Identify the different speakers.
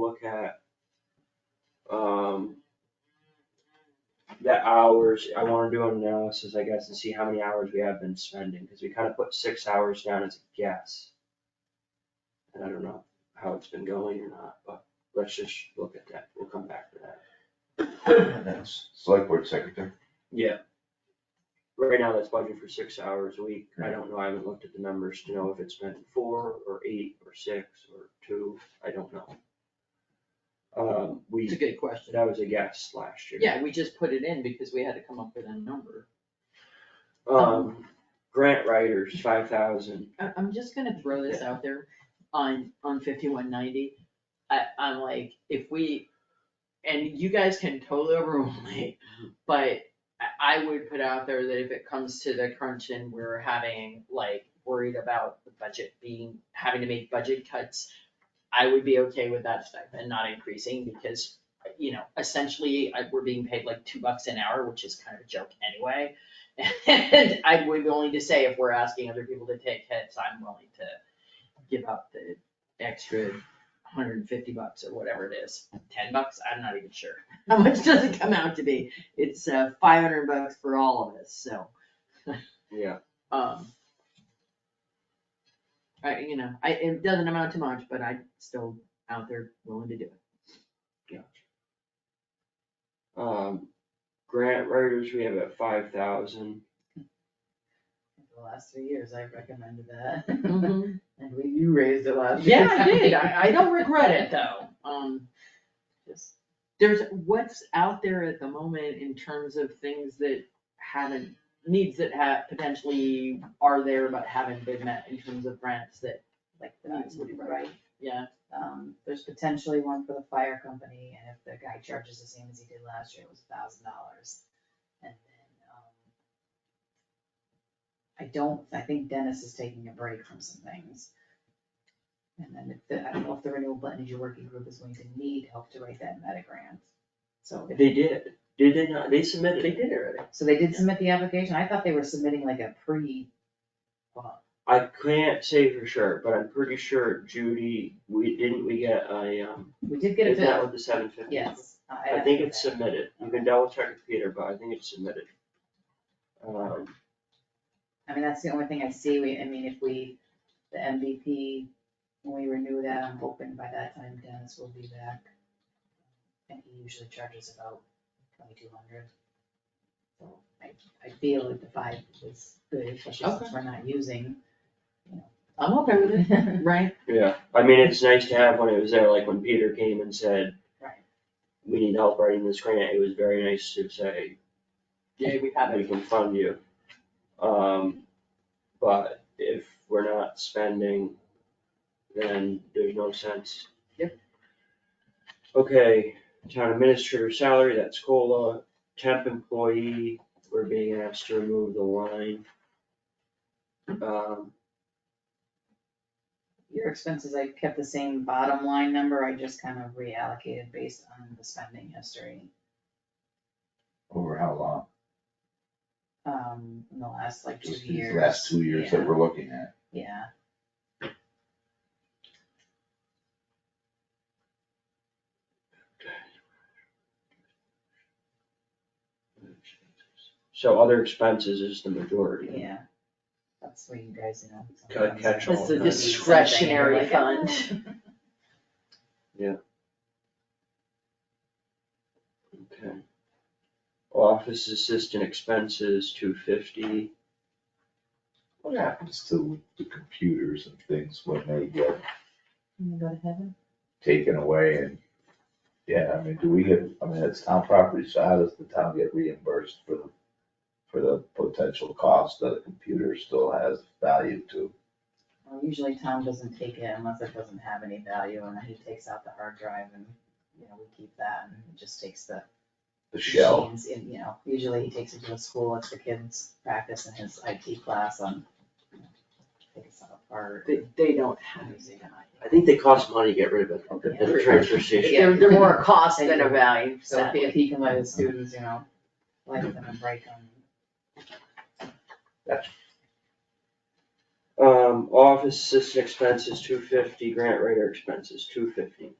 Speaker 1: look at, um, the hours, I wanna do an analysis, I guess, and see how many hours we have been spending, cause we kinda put six hours down as a guess. And I don't know how it's been going or not, but let's just look at that, we'll come back to that.
Speaker 2: That's select board secretary.
Speaker 1: Yeah. Right now, that's budget for six hours a week, I don't know, I haven't looked at the numbers to know if it's been four or eight or six or two, I don't know. Um,
Speaker 3: It's
Speaker 1: we,
Speaker 3: a good question.
Speaker 1: that was a guess last year.
Speaker 3: Yeah, we just put it in because we had to come up with a number.
Speaker 1: Um, grant writers, five thousand,
Speaker 3: I, I'm just gonna throw this out there on, on fifty-one ninety. I, I'm like, if we, and you guys can totally overrule me, but I, I would put out there that if it comes to the crunch and we're having, like, worried about the budget being, having to make budget cuts, I would be okay with that stipend not increasing because, you know, essentially, I, we're being paid like two bucks an hour, which is kind of a joke anyway. And I would be willing to say if we're asking other people to take hits, I'm willing to give up the extra hundred and fifty bucks or whatever it is, ten bucks, I'm not even sure. How much does it come out to be? It's uh five hundred bucks for all of us, so,
Speaker 1: yeah,
Speaker 3: um. I, you know, I, it doesn't amount to much, but I'm still out there willing to do it.
Speaker 1: um, grant writers, we have at five thousand,
Speaker 4: The last three years, I recommended that, and we, you raised it last year.
Speaker 3: Yeah, I did, I, I don't regret it though, um.
Speaker 4: Just-
Speaker 3: there's what's out there at the moment in terms of things that haven't, needs that have, potentially are there but haven't been met in terms of grants that,
Speaker 4: Like, that's right,
Speaker 3: yeah.
Speaker 4: um, there's potentially one for the fire company, and if the guy charges the same as he did last year, it was a thousand dollars. And then, um. I don't, I think Dennis is taking a break from some things. And then, if the- I don't know if the renewable energy working group is going to need help to write that meta grant, so. if-
Speaker 1: they did, did they not, they submitted, they did already.
Speaker 4: So they did submit the application, I thought they were submitting like a pre. well,
Speaker 1: I can't say for sure, but I'm pretty sure Judy, we, didn't we get a, um,
Speaker 4: We did get a
Speaker 1: is that
Speaker 4: bill,
Speaker 1: what the seven fifty?
Speaker 4: yes.
Speaker 1: I think it's
Speaker 4: have to do
Speaker 1: submitted, you can double check with Peter, but I think it's submitted. Um,
Speaker 4: that. I mean, that's the only thing I see, we, I mean, if we, the MVP, when we renew that, I'm hoping by that time Dennis will be back. And he usually charges about twenty-two hundred. So I, I feel that the five is good, especially since
Speaker 3: Okay.
Speaker 4: we're not using.
Speaker 3: I'm okay with it, right?
Speaker 1: yeah, I mean, it's nice to have when it was there, like when Peter came and said,
Speaker 4: Right.
Speaker 1: we need help writing this grant, it was very nice to say,
Speaker 3: Yeah, we have
Speaker 1: we
Speaker 3: it.
Speaker 1: can fund you. Um, but if we're not spending, then there's no sense.
Speaker 3: Yep.
Speaker 1: Okay, town administrator salary, that's COLA, temp employee, we're being asked to remove the line. Um,
Speaker 4: Your expenses, I kept the same bottom line number, I just kind of reallocated based on the spending history.
Speaker 2: Over how long?
Speaker 4: um, in the last like two
Speaker 2: Just these
Speaker 4: years.
Speaker 2: last two years that
Speaker 4: Yeah,
Speaker 2: we're looking at.
Speaker 4: Yeah,
Speaker 1: so other expenses is the majority.
Speaker 4: yeah. That's where you guys, you know.
Speaker 1: Gotta catch all
Speaker 3: It's a
Speaker 1: of that.
Speaker 3: discretionary fund.
Speaker 1: Okay. Office assistant expenses, two fifty.
Speaker 2: What happens to the computers and things when they get
Speaker 4: Can go to heaven?
Speaker 2: taken away and, yeah, I mean, do we get, I mean, it's town property, so how does the town get reimbursed for the, for the potential cost that a computer still has value to?
Speaker 4: Well, usually Tom doesn't take it unless it doesn't have any value and then he takes out the hard drive and, you know, we keep that and he just takes the
Speaker 2: The shell,
Speaker 4: machines and, you know, usually he takes it to the school, lets the kids practice in his IT class on. you know, Take stuff apart.
Speaker 3: They, they don't have
Speaker 4: and
Speaker 3: it.
Speaker 4: using it.
Speaker 1: I think they cost money to get rid of it,
Speaker 2: okay,
Speaker 1: at the transfer station.
Speaker 3: They're, they're more a cost than a value,
Speaker 4: So if he- if
Speaker 3: sadly.
Speaker 4: he can let his students, you know, light them and break them.
Speaker 2: gotcha.
Speaker 1: Um, office assistant expenses, two fifty, grant writer expenses, two fifty.